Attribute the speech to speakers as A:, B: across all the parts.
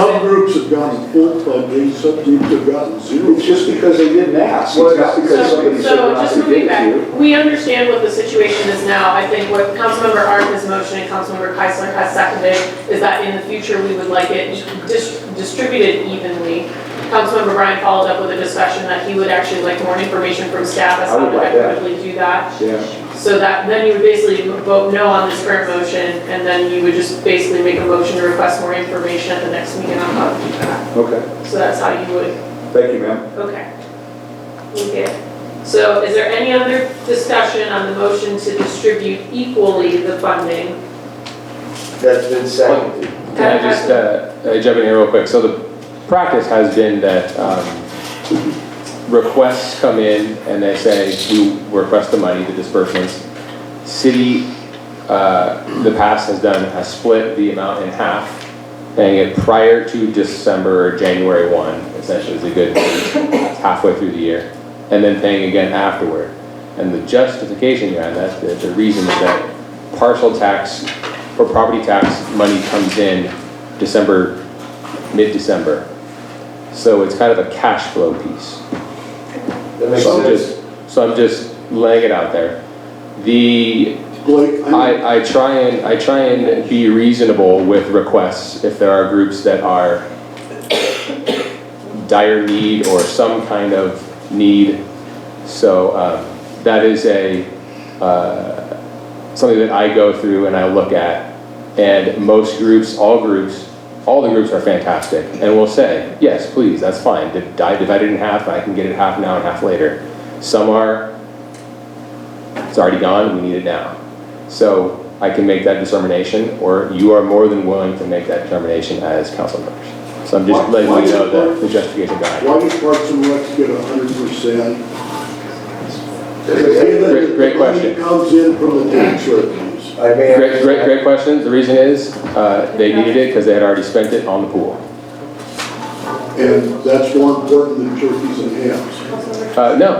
A: subgroups have gotten full funding, subgroups have gotten zero.
B: It's just because they didn't ask, it's not because
C: So,
B: somebody said
C: so
B: not
C: just
B: to give
C: moving
B: it to you.
C: back, we understand what the situation is now. I think what Councilmember Art has motioned and Councilmember Keisler has seconded is that in the future, we would like it dis- distributed evenly. Councilmember Bryan followed up with a discussion that he would actually like more information from staff as
B: I would
C: how to
B: like that.
C: effectively do that.
B: Yeah,
C: So that, then you would basically vote no on this current motion, and then you would just basically make a motion to request more information at the next meeting on how to do that.
B: okay,
C: So that's how you would
B: thank you, ma'am.
C: Okay. Okay. So is there any other discussion on the motion to distribute equally the funding?
B: That's been seconded.
D: Can I just uh, uh, jump in here real quick? So the practice has been that um, requests come in and they say, we request the money, the disbursements. City, uh, the past has done, has split the amount in half, paying it prior to December or January 1, essentially is a good, halfway through the year, and then paying again afterward. And the justification behind that, the the reason is that partial tax for property tax money comes in December, mid-December. So it's kind of a cash flow piece.
B: That
D: So I'm just, so I'm just laying it out there. The,
A: Blake, I,
D: I, I try and, I try and be reasonable with requests if there are groups that are dire need or some kind of need. So, um, that is a, uh, something that I go through and I look at. And most groups, all groups, all the groups are fantastic and will say, yes, please, that's fine. Di- Divide it in half, I can get it half now and half later. Some are, it's already gone, we need it now. So I can make that determination, or you are more than willing to make that determination as council members. So I'm just
A: Why-
D: letting
A: why
D: you
A: is
D: know
A: it-
D: the- the justification behind it.
A: why did Parks and Rec get a hundred percent?
D: Great- great question.
A: Comes in from the tax revenues.
B: I may
D: Great, great, great question. The reason is, uh, they needed it because they had already spent it on the pool.
A: And that's more important than turkeys and hams.
D: Uh, no,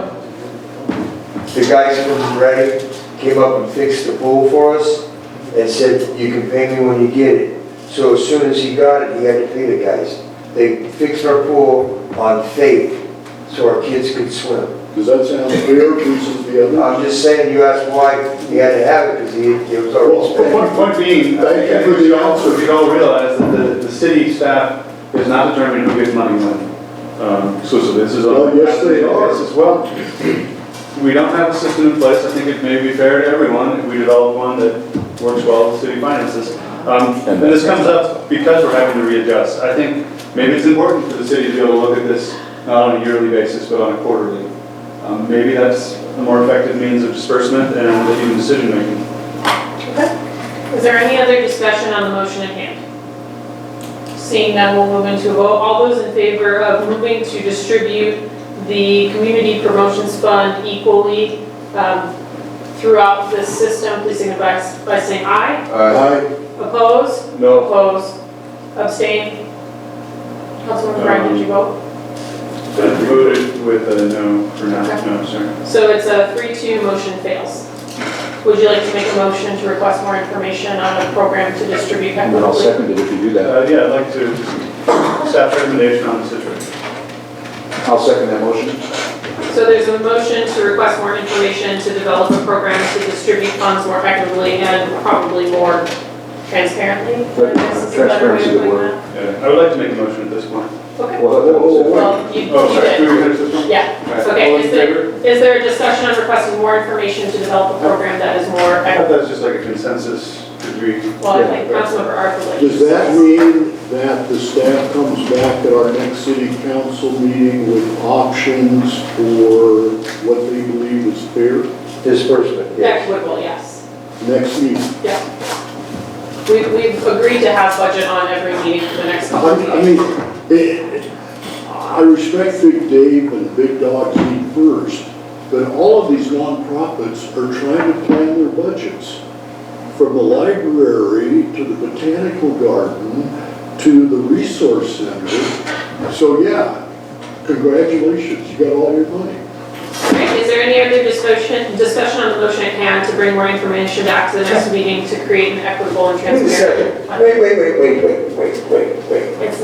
E: The guys from Reading came up and fixed the pool for us and said, you can pay me when you get it. So as soon as he got it, he had to pay the guys. They fixed our pool on faith, so our kids could swim.
A: Does that sound fair versus the other?
E: I'm just saying, you asked why he had to have it, because he, it was already
A: Well,
E: spent.
F: Point, point being, I
A: Thank you
F: think
A: for
F: we
A: the
F: all,
A: answer.
F: we all realize that the, the city staff is not determining who gets money when, um, exclusively, this is. a-
A: Well, yes, they are.
F: Yes, As well, we don't have a system in place, I think it may be fair to everyone if we develop one that works well with city finances. Um, and this comes up because we're having to readjust, I think maybe it's important for the city to be able to look at this not on a yearly basis, but on a quarterly. Um, maybe that's a more effective means of disbursement and even decision-making.
C: Is there any other discussion on the motion at hand? Seeing none, we'll move into a vote. All those in favor of moving to distribute the community promotions fund equally um, throughout this system, please signify by saying aye.
E: Uh,
A: I,
C: Opposed?
F: No.
C: Opposed? Abstain? Councilmember Bryan, did you vote?
F: I voted with a no for now, no, sorry.
C: So it's a three-two, motion fails. Would you like to make a motion to request more information on a program to distribute that quickly?
B: it if you do
F: Uh, yeah, I'd like to, staff recommendation on the situation.
B: I'll second that motion.
C: So there's a motion to request more information to develop a program to distribute funds more effectively and probably more transparently?
B: But transparency
C: Is that a better way of
B: would
C: doing
B: work.
F: Yeah, I would like to make a motion at this point.
C: that? Okay.
B: Well,
C: Well, you, you
F: Oh, sorry, do
C: did.
F: we finish this one?
C: Yeah.
F: All right,
C: Okay,
F: All in
C: is there-
F: favor?
C: Is there a discussion on requesting more information to develop a program that is more
F: I
C: effective?
F: thought that was just like a consensus, could we?
C: Well, I think Councilmember Art would like to
A: does that
C: discuss.
A: mean that the staff comes back at our next city council meeting with options for what they believe is fair
E: Disbursement, yes.
C: Equitable, yes.
A: next meeting?
C: We, we've agreed to have budget on every meeting for the next couple of
A: I I
C: meetings.
A: mean, eh, I respect Big Dave and Big Dogs Eat First, but all of these nonprofits are trying to plan their budgets. From the library to the botanical garden to the resource center. So yeah, congratulations, you got all your money.
C: Alright, Is there any other discussion, discussion on the motion at hand to bring more information back to the next meeting to create an equitable and
E: Wait a
C: transparent?
E: second, wait, wait, wait, wait, wait, wait, wait, wait.
C: It's